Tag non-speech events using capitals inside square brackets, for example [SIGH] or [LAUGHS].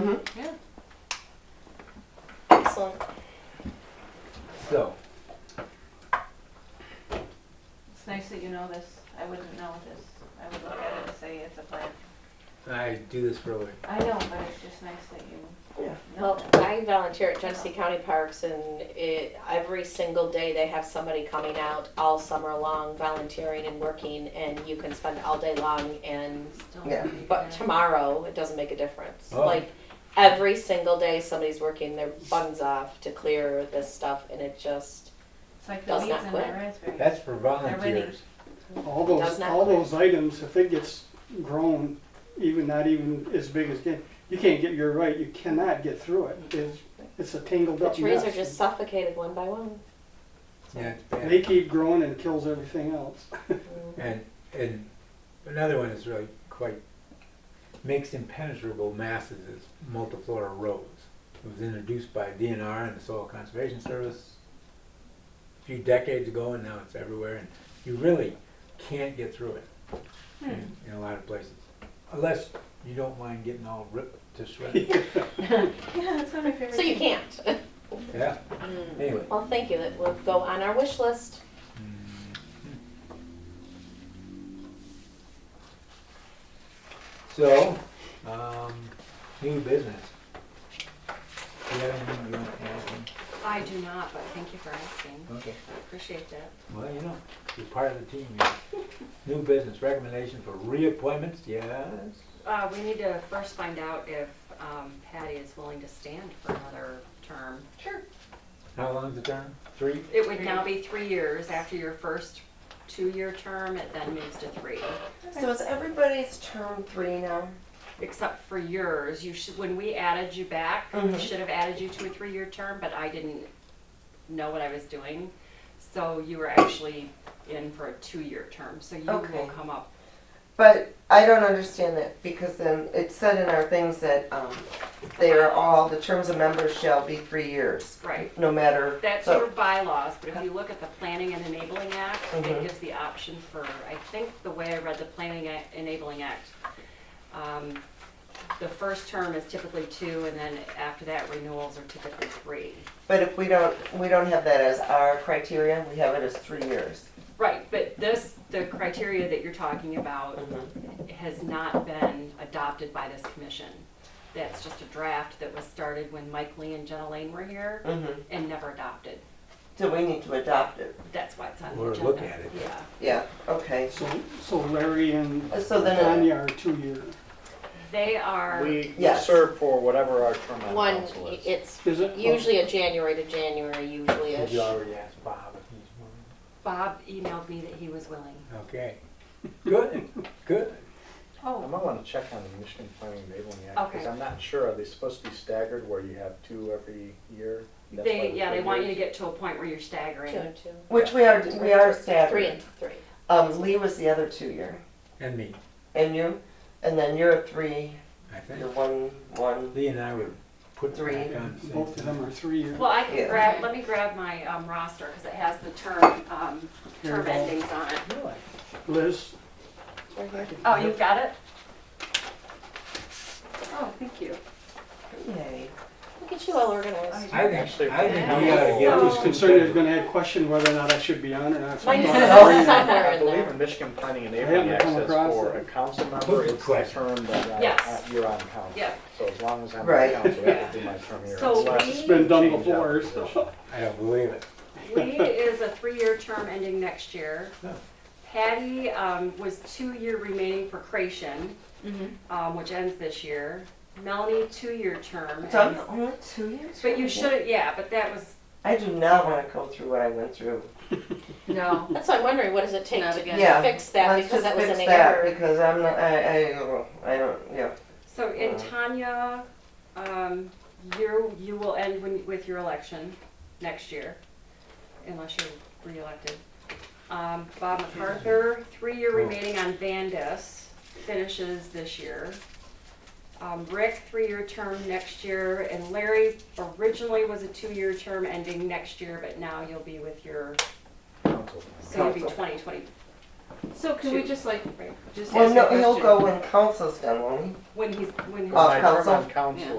Mhm. Yeah. Excellent. So, It's nice that you know this. I wouldn't know this. I would look at it and say it's a plan. I do this for a living. I know, but it's just nice that you Yeah. know Well, that. I volunteer at Genesee County Parks and it, every single day they have somebody coming out all summer long volunteering and working and you can spend all day long and, Still Yeah. pretty but good. tomorrow, it doesn't make a difference. Oh. Like, every single day somebody's working their buns off to clear this stuff and it just, It's like the does weeds not in my quit. raspberries. That's for volunteers. All Does those, not all work. those items, if it gets grown, even not even as big as, can- you can't get, you're right, you cannot get through it. It's, it's a tangled the up mess. trees are just suffocated one by one. Yeah, it's They bad. keep growing and kills everything else. And, and another one is really quite, makes impenetrable masses is multiflora rose. It was introduced by DNR and the Soil Conservation Service a few decades ago and now it's everywhere and you really can't get through it Hmm. in, in a lot of places. Unless you don't mind getting all ripped to shreds. [LAUGHS] Yeah, that's one of my favorite. So you things. can't. [LAUGHS] Yeah, anyway. Well, thank you, that will go on our wish list. Mm-hmm. So, um, new business. Do you have anything you want to add? I do not, but thank you for asking. Okay. I Appreciate that. Well, you know, you're part of the team. you know. [LAUGHS] New business recommendation for reappointments, yes? Uh, we need to first find out if um, Patty is willing to stand for another term. Sure. How long's the term? Three? It would now be three years after your first two-year term, it then moves to three. So is everybody's term three now? Except for yours, you should, when we added you back, we Mhm. should have added you to a three-year term, but I didn't know what I was doing. So you were actually in for a two-year term, so you will Okay. come up. But I don't understand that because then it said in our things that um, they are all, the terms of members shall be three years, Right. no matter. That's so- your bylaws, but if you look at the Planning and Enabling Act, it Mm-hmm. Mhm. gives the option for, I think the way I read the Planning Act, Enabling Act, um, the first term is typically two, and then after that renewals are typically three. But if we don't, we don't have that as our criteria, we have it as three years. Right, but this, the criteria that you're talking about Mm-hmm, has not been adopted by this commission. That's just a draft that was started when Mike Lee and Jenna Lane were here Mhm. and never adopted. So we need to adopt it. That's why it's on the Or agenda. look at it. Yeah. Yeah, okay. So, so Larry and Uh, So then- Tanya are two year. They are. We we Yes. serve for whatever our term on One, council is. it's Is it? usually a January to January, usually-ish. Did you already ask Bob if he's willing? Bob emailed me that he was willing. Okay. Good, good. I Oh, might want to check on the Michigan Planning and Enabling Act, because Okay. I'm not sure, are they supposed to be staggered where you have two every year? That's why They, the yeah, they three want you to years? get to a point where you're staggering. Two and two. Which we are, we are Three staggered. and three. Um, Lee was the other two year, And me, and you, and then you're a three, I think. you're one, one. Lee and I would put Three. back on the same Both of them are three year. Well, I can Yeah. grab, let me grab my um, roster because it has the term, um, Here you term go. endings on it. Really? Liz, It's right here. Oh, you've got it? Oh, thank you. Yay. Look at you all organized. I think, Actually, I think we yeah. ought to get I So- was these concerned there's gonna have question whether or not I should be on or not. so I'm Mine's [LAUGHS] gonna bring it. somewhere I in believe there. in Michigan Planning and I Enabling haven't Act come says across for it. a council member, it's the Question. term that I- Yes. I, you're on council. Yeah. So as long as I'm on Right. council, that would be my term year. So unless we- It's been done change out before, the so. position. I don't believe it. Lee is a three-year term ending next year. Oh. Patty um, was two-year remaining for Creation, um, which ends this year. Melanie, two-year term. So I'm ends- only two years. But you should, yeah, but that was, I do not want to go through what I went through. no. That's why I'm wondering, what does it take Not to again. Yeah, to fix that, Let's because that just was fix an that error. Because I'm not, I, I, don't know. I don't, yeah. So in Tanya, um, you, you will end when, with your election next year, unless you're reelected. Um, Bob MacArthur, three-year remaining on Vandus, finishes this year. Um, Rick, three-year term next year, and Larry originally was a two-year term ending next year, but now you'll be with your, Council. so you'll be twenty twenty, so can we Two. just like, right? just ask a Well, question? no, he'll go when council's done, won't he? When he's, when his. Oh, My term council? on Uh, council